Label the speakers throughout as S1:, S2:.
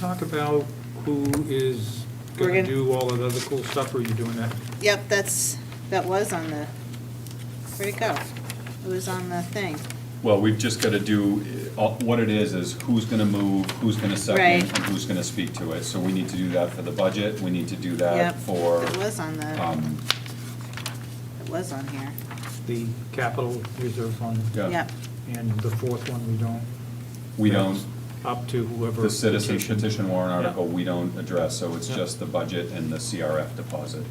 S1: Talk about who is
S2: We're
S1: going
S2: gonna-
S1: to do all of the other cool stuff, or are you doing that?
S2: Yep, that's, that was on the, where'd it go? It was on the thing.
S3: Well, we've just got to do, uh, what it is, is who's going to move, who's going to second,
S2: Right.
S3: and who's going to speak to it. So we need to do that for the budget, we need to do
S2: Yep.
S3: that for,
S2: It was on the,
S3: um,
S2: it was on here.
S1: The capital reserve fund,
S3: yeah,
S2: Yep,
S1: and the fourth one, we don't,
S3: we don't,
S1: up to whoever.
S3: the citizen petition warrant
S1: Yeah.
S3: article, we don't address, so it's
S1: Yeah.
S3: just the budget and the CRF deposit.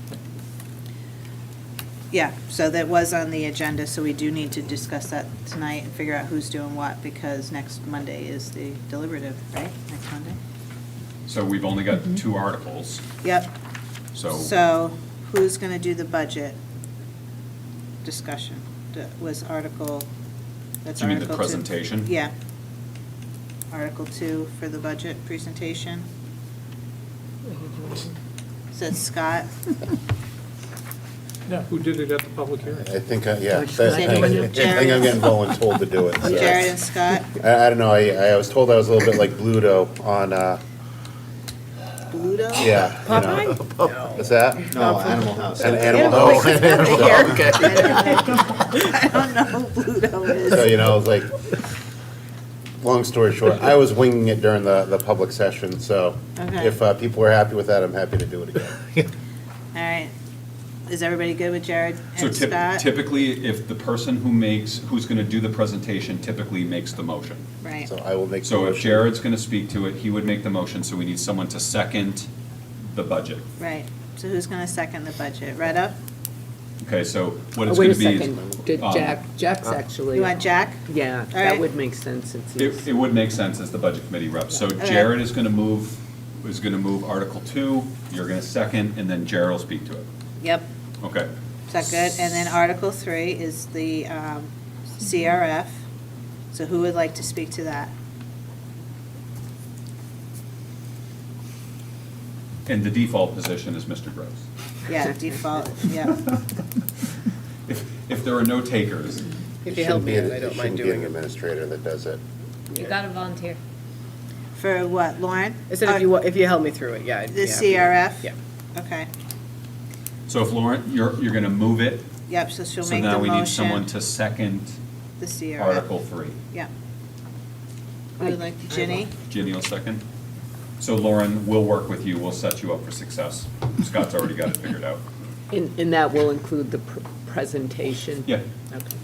S2: yeah, so that was on the agenda, so we do need to discuss that tonight and figure out who's doing what, because next Monday is the deliberative, right? Next Monday?
S3: So we've only got two articles,
S2: Yep,
S3: so
S2: Mm-hmm. so who's gonna do the budget discussion? That was article, that's
S3: you mean
S2: article two.
S3: the presentation?
S2: Yeah. Article two for the budget presentation. Says Scott.
S1: Yeah, who did it at the public hearing?
S4: I think, I- yeah, I
S5: Which
S4: think I
S2: one?
S4: think I'm getting voluntold to do it. so.
S2: Jared and Scott,
S4: I, I don't know, I, I was told I was a little bit like Bluto on, uh,
S2: Bluto?
S4: yeah. you know. What's that?
S6: No, Animal House.
S4: An animal house. So,
S2: I don't know who Bluto
S4: So,
S2: is.
S4: you know, it was like, long story short, I was winging it during the, the public session, so
S2: Okay.
S4: if uh, people are happy with that, I'm happy to do it again.
S2: All right. Is everybody good with Jared
S3: So
S2: and
S3: typ-
S2: Scott?
S3: typically, if the person who makes, who's going to do the presentation typically makes the motion.
S2: Right,
S4: So I will make. the
S3: So if
S4: motion.
S3: Jared's going to speak to it, he would make the motion, so we need someone to second the budget.
S2: right. So who's gonna second the budget? Retta?
S3: Okay, so what
S5: Oh,
S3: it's
S5: Wait
S3: going
S5: a
S3: to be.
S5: second, Did
S3: um,
S5: Jack, Jack's actually.
S2: You want Jack?
S5: Yeah,
S2: Alright.
S5: that would make sense since
S3: It,
S5: he's,
S3: it would make sense as the budget committee rep. So
S2: Okay.
S3: Jared is going to move, is going to move Article Two, you're going to second, and then Jared will speak to it.
S2: Yep.
S3: Okay.
S2: Is that good? And then Article three is the um, CRF. So who would like to speak to that?
S3: And the default position is Mr. Gross.
S2: Yeah, default, yeah.
S3: If, if there are no takers,
S4: It
S6: If you help
S4: shouldn't
S6: me,
S4: be an-
S6: out, I don't mind
S4: It shouldn't
S6: doing
S4: be an
S6: it.
S4: administrator that does it.
S7: You gotta volunteer.
S2: For what, Lauren?
S6: I said if you, wa-
S5: Uh,
S6: if you help me through it, yeah. I'd
S2: The
S6: be happy to-
S2: CRF?
S6: Yeah.
S2: Oh, Okay,
S3: so if Lauren, you're, you're going to move it,
S2: yep, so she'll
S3: so
S2: make the motion.
S3: now we need someone to second
S2: The CRF.
S3: Article Three.
S2: Yep. Who would like, Ginny?
S3: Ginny will second. So Lauren, we'll work with you, we'll set you up for success. Scott's already got it figured out.
S5: and, and that will include the pr- presentation?
S3: Yeah,
S5: Okay.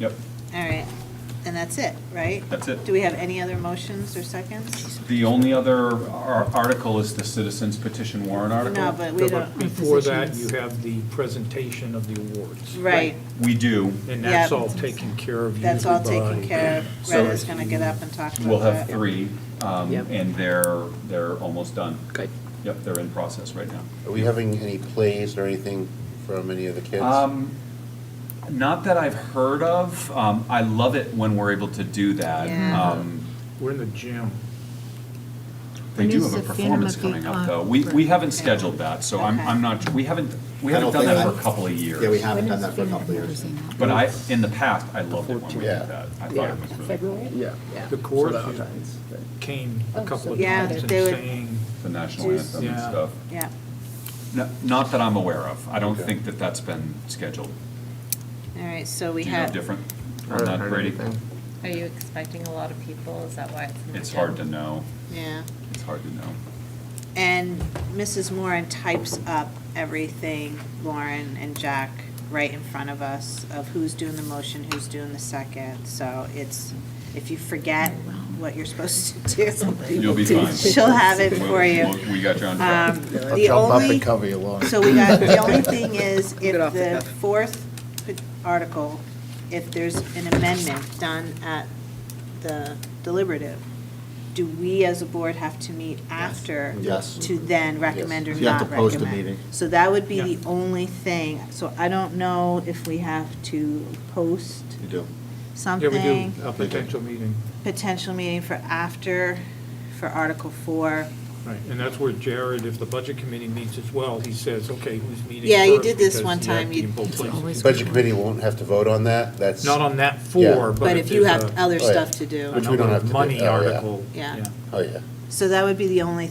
S3: yep,
S2: All right, and that's it, right?
S3: that's it.
S2: Do we have any other motions or seconds?
S3: The only other ar- article is the citizens petition warrant article.
S2: No, but we don't,
S1: Before that, you have the presentation of the awards.
S2: right,
S3: We do,
S1: And that's
S2: Yeah.
S1: all taken care of.
S2: that's all
S1: usually
S2: taken
S1: by-
S2: care of.
S3: So-
S2: Retta's gonna get up and talk about that.
S3: we'll have three, um,
S5: Yep.
S3: and they're, they're almost done.
S5: Good.
S3: Yep, they're in process right now.
S4: Are we having any plays or anything from any of the kids?
S3: Um, Not that I've heard of, um, I love it when we're able to do that.
S2: Yeah.
S3: Um,
S1: We're in the gym.
S3: They
S7: When
S3: do
S7: is
S3: have a
S7: the
S3: performance
S7: Phantom of
S3: coming
S7: the
S3: up, though. We, we haven't scheduled that, so I'm,
S2: Okay.
S3: I'm not, we haven't, we
S6: I
S3: haven't
S6: don't
S3: done
S6: think
S3: that for
S6: I-
S3: a couple of years.
S6: Yeah, we haven't done that for a couple of years.
S3: But I, in the past, I loved it when we did that. I thought
S5: Yeah.
S3: it was really cool.
S6: Yeah.
S5: Yeah.
S1: The court came a couple of
S2: Oh, Yeah,
S1: times and
S2: they would-
S1: saying,
S3: The national
S2: Juice.
S3: anthem and
S1: Yeah.
S3: stuff.
S2: Yeah,
S3: No- Not that I'm aware of. I don't
S4: Okay.
S3: think that that's been scheduled.
S2: all right, so
S3: Do
S2: we
S3: you know
S2: have.
S3: different on that, Brady?
S7: Are you expecting a lot of people? Is that why it's? in the
S3: It's hard to
S7: gym?
S3: know.
S2: Yeah,
S3: It's hard to know.
S2: and Mrs. Moran types up everything, Lauren and Jack, right in front of us, of who's doing the motion, who's doing the second, so it's, if you forget what you're supposed to do,
S3: You'll be fine.
S2: she'll have it
S3: We'll-
S2: for you.
S3: we'll- We got you on track.
S2: Um, The only,
S6: cover you, Lauren.
S2: so we got, the only thing is, if
S6: Get off the
S2: the
S6: cuff.
S2: fourth p- article, if there's an amendment done at the deliberative, do we as a board have to meet after?
S6: Yes.
S2: To then recommend or
S6: You have
S2: not
S6: to
S2: recommend?
S6: post a meeting.
S2: So that would be
S1: Yeah.
S2: the only thing, so I don't know if we have to post
S6: You do.
S1: yeah,
S2: something
S1: we do a potential meeting.
S2: potential meeting for after, for Article Four.
S1: Right, and that's where Jared, if the budget committee meets as well, he says, okay, who's meeting
S2: Yeah, you
S1: first?"
S2: did this
S1: because
S2: one
S1: you have
S2: time,
S1: to
S2: you-
S1: be in both places.
S4: Budget committee won't have to vote on that, that's.
S1: Not on that four,
S4: Yeah.
S1: but
S2: But if you
S1: there's
S2: have
S6: Oh,
S1: a-
S2: other
S4: Right.
S2: stuff to do.
S4: Which we don't
S1: another
S4: have to do.
S1: Money
S4: Oh, yeah.
S1: article.
S2: Yeah.
S4: Oh, yeah.
S2: So that would be the only